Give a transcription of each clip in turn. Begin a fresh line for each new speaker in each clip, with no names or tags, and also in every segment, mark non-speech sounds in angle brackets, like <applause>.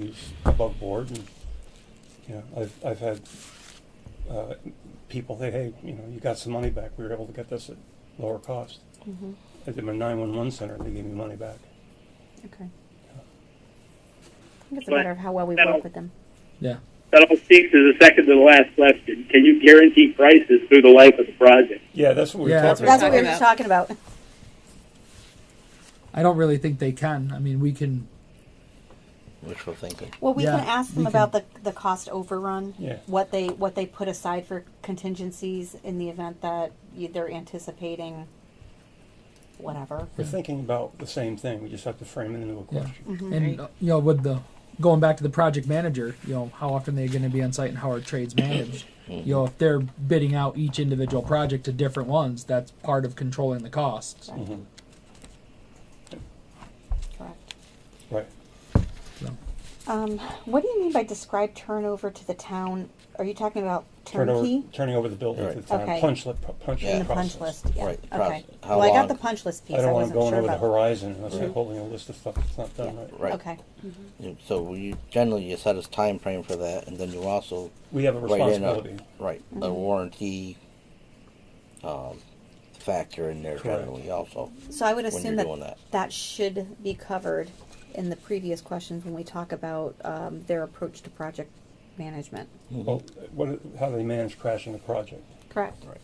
is above board and, you know, I've, I've had, uh, people say, hey, you know, you got some money back, we were able to get this at lower cost.
Mhm.
I did my nine-one-one center, they gave me money back.
Okay. I think it's a
But
matter of how well we
that'll-
work with them.
Yeah.
That all speaks to the second to the last question. Can you guarantee prices through the life of the project?
Yeah, that's what we were
Yeah, that's
talking
what-
about.
That's what we were just talking about.
I don't really think they can. I mean, we can.
Wishful thinking.
Well, we
Yeah,
can ask
we
them about the, the cost overrun.
Yeah.
What they, what they put aside for contingencies in the event that you- they're anticipating whatever.
We're thinking about the same thing, we just have to frame it into a
Yeah.
Mm.
question.
Mm-hmm.
And uh, you know, with the going back to the project manager, you know, how often they're going to be on site and how are trades managed? You know, if they're bidding out each individual project to different ones, that's part of controlling the costs.
Mhm.
Correct.
Right.
So,
Um, what do you mean by describe turnover to the town? Are you talking about
Turn over-
turnkey?
Turning over the building to the
Right.
town,
Okay.
punch list, punch
In
list
the punch
process.
list, yeah,
Right, the
okay.
process. How
Well, I got
long?
the punch list piece,
I
I
don't wanna
wasn't
go
sure
over the
about.
horizon unless they're holding a list of stuff that's not done right.
Right.
Okay,
You- So we generally you set a time frame for that, and then you also
We have a
write in a
responsibility.
right
Mm-hmm.
a warranty um, factor in there
Correct.
generally also.
so I would
When
assume
you're
that
doing that.
that should be covered in the previous questions when we talk about, um, their approach to project management,
Well, what, how do they manage crashing a project?
correct?
Right.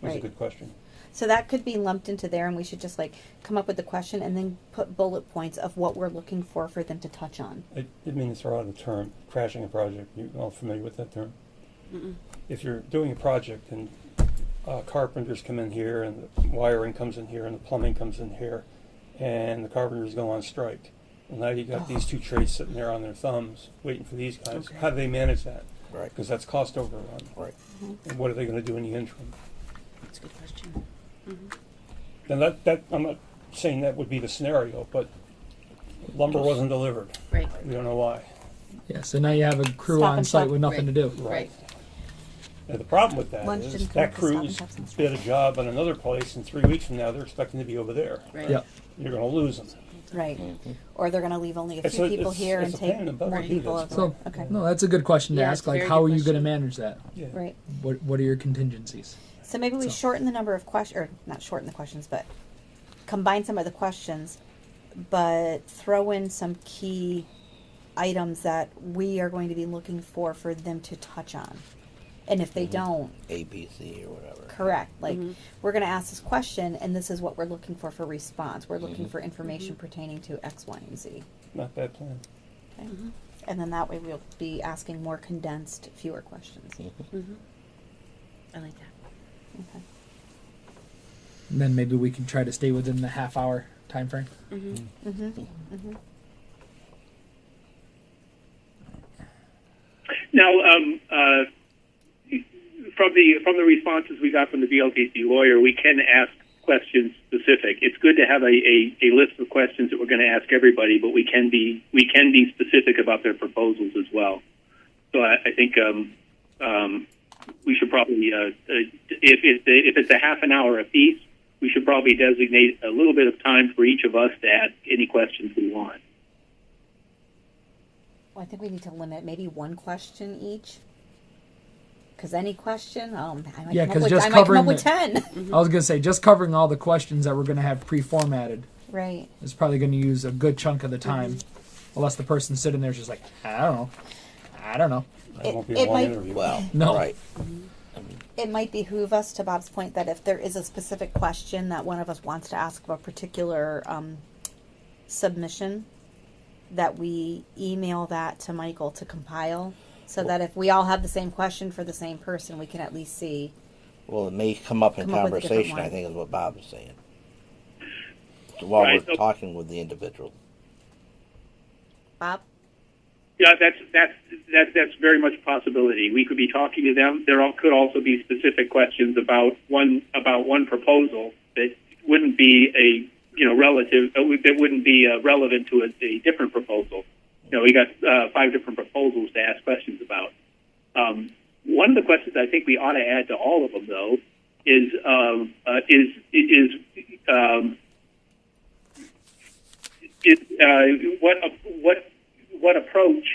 That's a
Right.
good question.
So that could be lumped into there and we should just like come up with the question and then put bullet points of what we're looking for for them to touch on.
I didn't mean to throw out a term, crashing a project. You all familiar with that term? If you're doing a project and uh, carpenters come in here and the wiring comes in here and the plumbing comes in here and the carpenters go on strike. Well, now you got these two trades sitting there on their thumbs waiting for these guys. How do they manage that?
Right.
Because that's cost overrun.
Right.
And what are they going to do in the interim?
That's a good question.
Now that, that, I'm not saying that would be the scenario, but lumber wasn't delivered.
Right.
We don't know why.
yeah. So now you have a crew
Stop
on
and
site
shop.
with nothing to do.
Right.
Now, the problem with that
Lunch
is
didn't come
that
up with Stop and
crew's
Shop's and
did a job on another place, and three weeks from now, they're expecting to be over there.
Right.
Yeah.
You're gonna lose them.
Right. Or they're going to leave only a
It's
few
a-
people
it's-
here
it's
and
a pain in the
take
butt
more
to do
people.
this,
over.
So,
okay.
no, that's a good question to
Yeah,
ask.
it's a
Like,
very
how
good
are you going to
question.
manage that?
Yeah.
Right.
What What are your contingencies?
So maybe we
So-
shorten the number of questions, or not shorten the questions, but combine some of the questions, but throw in some key items that we are going to be looking for for them to touch on. And if they don't,
A B C or whatever.
correct. Like we're going to ask this question, and this is what we're looking for for response. We're looking for information pertaining to X, Y, and Z.
Not bad plan.
Okay? And then that way we'll be asking more condensed, fewer questions.
I like that.
Okay.
And then maybe we can try to stay within the half hour time frame.
Now, um, uh, from the from the responses we got from the VLTC lawyer, we can ask questions specific. It's good to have a, a, a list of questions that we're going to ask everybody, but we can be we can be specific about their proposals as well. So I, I think um, um, we should probably uh, uh, if if, the, if it's a half an hour apiece, we should probably designate a little bit of time for each of us to ask any questions we want.
Well, I think we need to limit maybe one question each. Because any question, um, I might
Yeah,
come
'cause
up with,
just
I might come
covering
up with
the- <laughs>
ten.
Mm-hmm.
I was going to say just covering all the questions that we're going to have pre-formatted
right.
is probably going to use a good chunk of the time, unless the person sitting there is just like, I don't know, I don't know.
That
It-
won't be
it
a long
might-
interview.
Well,
No.
right.
It might behoove us, to Bob's point, that if there is a specific question that one of us wants to ask of a particular um, submission, that we email that to Michael to compile, so that if we all have the same question for the same person, we can at least see.
Well, it may come up in
Come up with a different
conversation.
one.
I think is what Bob is saying. So while
Right,
we're
so-
talking with the individual,
Bob,
Yeah, that's that's that's that's very much a possibility. We could be talking to them. There all, could also be specific questions about one about one proposal that wouldn't be a you know relative that would- that wouldn't be uh, relevant to a, a different proposal. You know, we got uh, five different proposals to ask questions about. Um, one of the questions I think we ought to add to all of them though is um, uh, is is um, it, uh, what what what approach